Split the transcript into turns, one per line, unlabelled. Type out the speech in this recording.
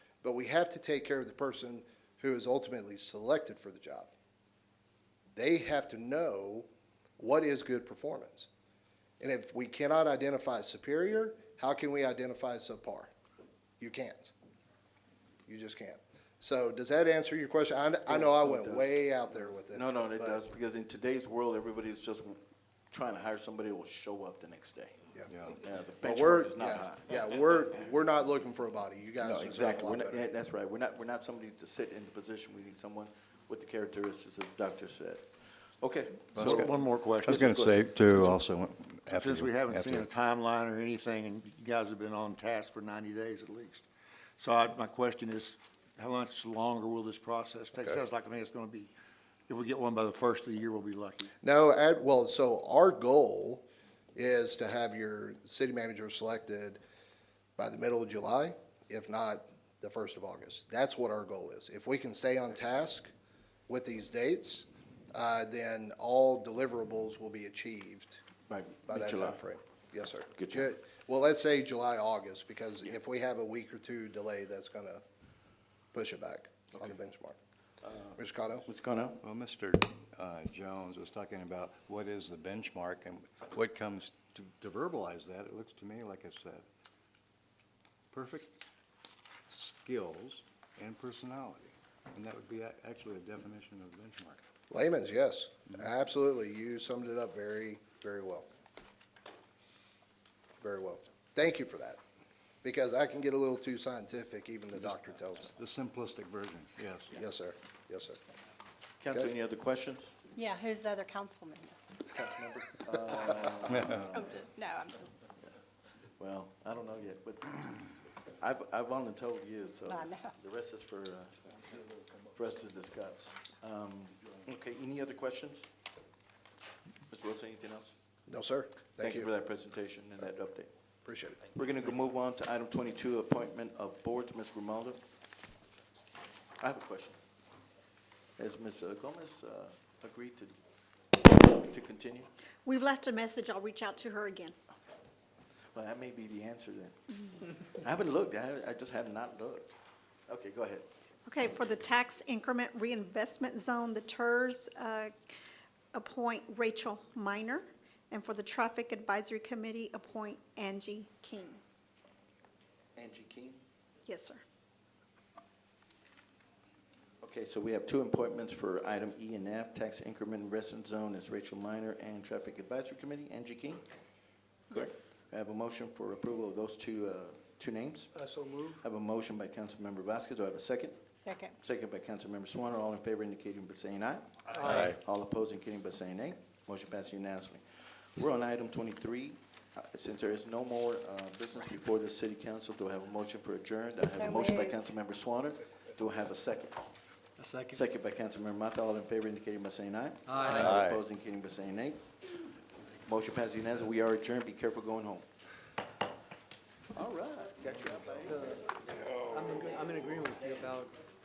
But we have to take care of the person who is ultimately selected for the job. They have to know what is good performance. And if we cannot identify superior, how can we identify subpar? You can't. You just can't. So does that answer your question? I, I know I
It
went
does.
way out there with it.
No, no, it
but-
does, because in today's world, everybody's just trying to hire somebody who will show up the next day.
Yeah. Yeah.
Yeah, the
But we're,
benchmark is not
yeah,
high.
yeah, we're, we're not looking for a body. You guys
No,
deserve a
exactly,
lot
we're not,
better.
yeah, that's right, we're not, we're not somebody to sit in the position, we need someone with the characteristics that the doctor said. Okay.
So
so-
one more question.
I was going to say too, also, after.
Since we
you-
haven't
after
seen
you.
a timeline or anything, and you guys have been on task for ninety days at least. So I, my question is, how much longer will this process take?
Okay.
Sounds like, I mean, it's gonna be, if we get one by the first of the year, we'll be lucky.
No, at, well, so our goal is to have your city manager selected by the middle of July, if not the first of August. That's what our goal is. If we can stay on task with these dates, uh, then all deliverables will be achieved
By
by that
mid-July.
timeframe. Yes, sir.
Good
Ju-
job.
Well, let's say July, August, because if we have a week or two delay, that's gonna push it back on the benchmark.
Uh,
Mr. Cotto?
Mr. Connell?
Well, Mr. uh, Jones was talking about what is the benchmark and what comes to, to verbalize that, it looks to me like it's that perfect skills and personality. And that would be a- actually a definition of benchmark.
Layman's, yes, absolutely. You summed it up very, very well. Very well. Thank you for that, because I can get a little too scientific, even the doctor tells me.
The simplistic version, yes.
Yes, sir. Yes, sir.
Counsel,
Good.
any other questions?
Yeah, who's the other council member?
uh,
Oh, d- No, I'm just,
Well, I don't know yet, but I've, I've only told you, so
I know.
the rest is for, uh, for us to discuss. Um, Okay, any other questions? Mr. Wilson, anything else?
No, sir. Thank
for
you.
that presentation and that update.
Appreciate it.
We're gonna go move on to item twenty-two, appointment of boards, Ms. Grimaldo. I have a question. Has Ms. Gomez uh, agreed to, to continue?
We've left a message. I'll reach out to her again.
Well, that may be the answer then. I haven't looked, I, haven't- I just have not looked. Okay, go ahead.
Okay, for the tax increment reinvestment zone, the TERS, uh, appoint Rachel Minor. And for the traffic advisory committee, appoint Angie King.
Angie King?
Yes, sir.
Okay, so we have two appointments for item E and F, tax increment investment zone is Rachel Minor and Traffic Advisory Committee, Angie King. Correct.
Yes.
I have a motion for approval of those two, uh, two names. I so move. I have a motion by Councilmember Vasquez, do I have a second?
second,
Second by Councilmember Swann, all in favor indicating by saying aye. Aye. All opposed indicating by saying nay. Motion passes unanimously. We're on item twenty-three. Uh, Since there is no more uh, business before the city council, do I have a motion for adjourned? I have a
So
motion by
moved.
Councilmember Swann. Do I have a second? A second. Second by Councilmember Mata, all in favor indicating by saying aye. Aye. All opposed indicating by saying nay. Motion passes unanimously. We are adjourned. Be careful going home. All right, got you.
I'm, in- I'm in agreement with you about